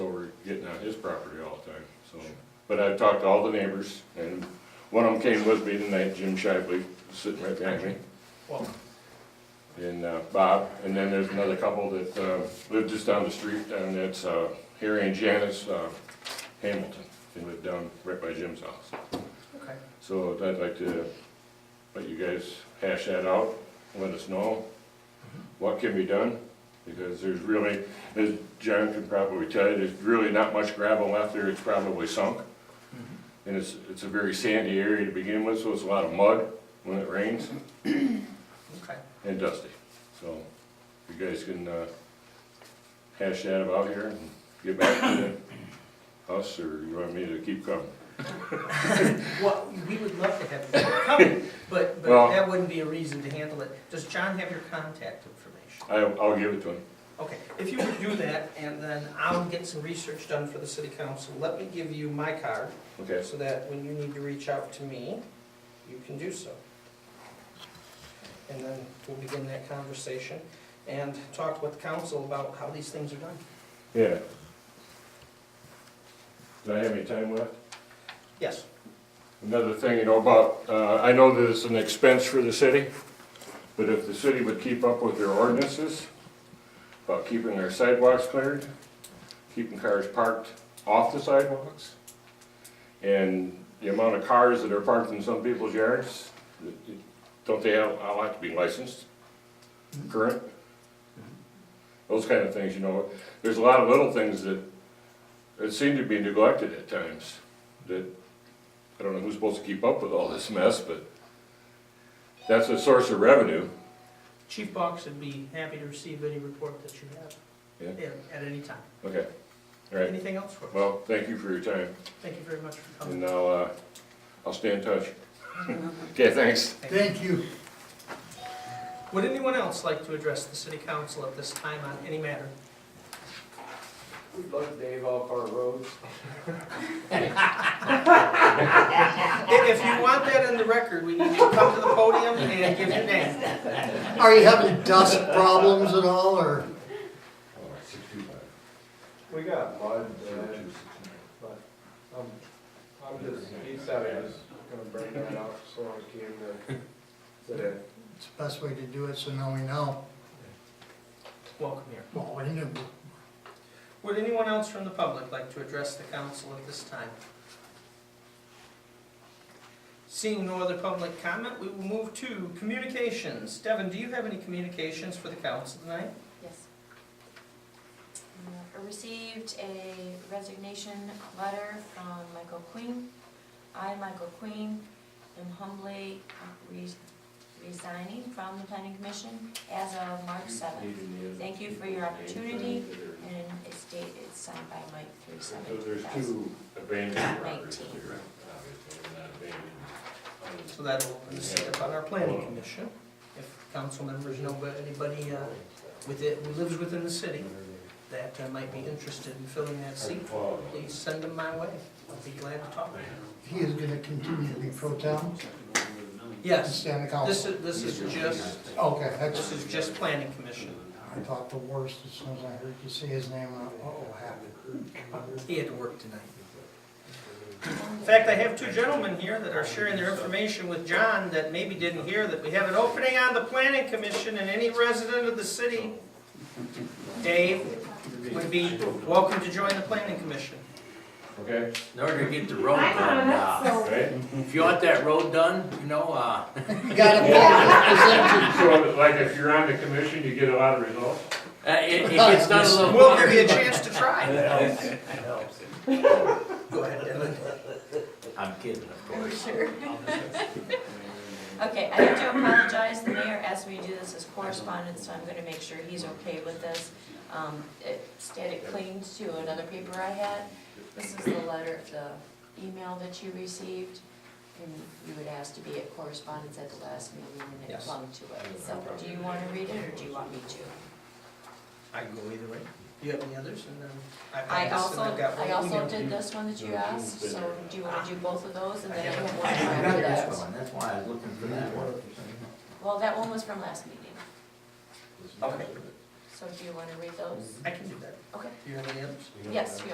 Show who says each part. Speaker 1: getting on his property all the time, so. But I've talked to all the neighbors, and one of them came with me tonight, Jim Shively, sitting right behind me.
Speaker 2: Well,
Speaker 1: and uh, Bob, and then there's another couple that uh, live just down the street, and that's uh, Harry and Janice uh, Hamilton. They live down right by Jim's house.
Speaker 2: okay,
Speaker 1: So I'd like to let you guys hash that out, let us know
Speaker 2: Mm-hmm.
Speaker 1: what can be done, because there's really, as John can probably tell you, there's really not much gravel left there, it's probably sunk. And it's, it's a very sandy area to begin with, so it's a lot of mud when it rains
Speaker 2: okay.
Speaker 1: and Dusty. So you guys can uh, hash that about here and get back to the- us, or you want me to keep coming?
Speaker 2: Well, we would love to have you come, but,
Speaker 1: Well-
Speaker 2: but that wouldn't be a reason to handle it. Does John have your contact information?
Speaker 1: I, I'll give it to him.
Speaker 2: Okay, if you would do that, and then I'll get some research done for the city council. Let me give you my card,
Speaker 1: Okay,
Speaker 2: so that when you need to reach out to me, you can do so. And then we'll begin that conversation and talk with council about how these things are done.
Speaker 1: yeah. Do I have any time left?
Speaker 2: Yes,
Speaker 1: Another thing, you know, about, uh, I know that it's an expense for the city, but if the city would keep up with their ordinances about keeping their sidewalks cleared, keeping cars parked off the sidewalks, and the amount of cars that are parked in some people's yards, don't they all all have to be licensed, current? Those kind of things, you know, there's a lot of little things that, that seem to be neglected at times, that I don't know who's supposed to keep up with all this mess, but that's a source of revenue.
Speaker 2: Chief Box would be happy to receive any report that you
Speaker 1: Yeah.
Speaker 2: have at- at any time.
Speaker 1: Okay, all right.
Speaker 2: Anything else for us?
Speaker 1: Well, thank you for your time,
Speaker 2: Thank you very much for coming.
Speaker 1: and I'll, uh, I'll stay in touch. Okay, thanks.
Speaker 3: Thank you.
Speaker 2: Would anyone else like to address the city council at this time on any matter?
Speaker 4: We love Dave off our roads.
Speaker 2: If if you want that in the record, we need you to come to the podium and give your name.
Speaker 3: Are you having dust problems at all, or?
Speaker 4: We got mud, uh, but I'm, I'm just, he said I was gonna bring that up, so I came to today.
Speaker 3: It's the best way to do it, so now we know.
Speaker 2: Welcome here.
Speaker 3: Well, we knew.
Speaker 2: Would anyone else from the public like to address the council at this time? Seeing no other public comment, we will move to communications. Devin, do you have any communications for the council tonight?
Speaker 5: Yes. Uh, I received a resignation letter from Michael Queen. I, Michael Queen, am humbly re- resigning from the planning commission as of March seventh. Thank you for your opportunity, and it's dated, it's signed by Mike three seven two thousand.
Speaker 1: abandoned
Speaker 5: properties here,
Speaker 2: So that'll open the seat up on our planning commission. If council members know about anybody uh, with it, who lives within the city that uh, might be interested in filling that seat, please send them my way. I'll be glad to talk.
Speaker 3: He is gonna continue to be pro town and
Speaker 2: Yes,
Speaker 3: stand the
Speaker 2: this
Speaker 3: council.
Speaker 2: is, this is just,
Speaker 3: Okay,
Speaker 2: this
Speaker 3: that's,
Speaker 2: is just planning commission.
Speaker 3: I thought the worst, as soon as I heard you say his name, I, uh-oh, happened.
Speaker 2: He had to work tonight. In fact, I have two gentlemen here that are sharing their information with John that maybe didn't hear that we have an opening on the planning commission and any resident of the city, Dave, would be welcome to join the planning commission.
Speaker 1: Okay,
Speaker 6: In order to get the road
Speaker 7: I'm
Speaker 6: done,
Speaker 7: on it,
Speaker 6: uh,
Speaker 7: so.
Speaker 1: right?
Speaker 6: if you want that road done, you know, uh,
Speaker 3: You gotta vote,
Speaker 1: So, like, if you're on the commission, you get a lot of results?
Speaker 6: it, it gets done a little.
Speaker 2: We'll give you a chance to try.
Speaker 6: helps.
Speaker 2: Go ahead, Dylan.
Speaker 6: I'm kidding, of
Speaker 5: Are we
Speaker 6: course.
Speaker 5: sure? Okay, I have to apologize, the mayor asked me to do this as correspondence, so I'm gonna make sure he's okay with this. Um, it stayed it cleaned to another paper I had, this is the letter, the email that you received, and you would ask to be at correspondence at the last meeting, and it
Speaker 2: Yes.
Speaker 5: clung to it. So, do you wanna read it, or do you want me to?
Speaker 2: I can go either way. Do you have any others? And then I've got
Speaker 5: I
Speaker 2: this
Speaker 5: also,
Speaker 2: and I've got one
Speaker 5: I also
Speaker 2: email.
Speaker 5: did this one that you asked, so do you wanna do both of those, and then I have one
Speaker 6: I
Speaker 5: after
Speaker 6: got
Speaker 5: that?
Speaker 6: this one, that's why I was looking for that one.
Speaker 5: Well, that one was from last meeting,
Speaker 2: Okay,
Speaker 5: so do you wanna read those?
Speaker 2: I can do that.
Speaker 5: Okay.
Speaker 2: Do you have any others?
Speaker 5: Yes, you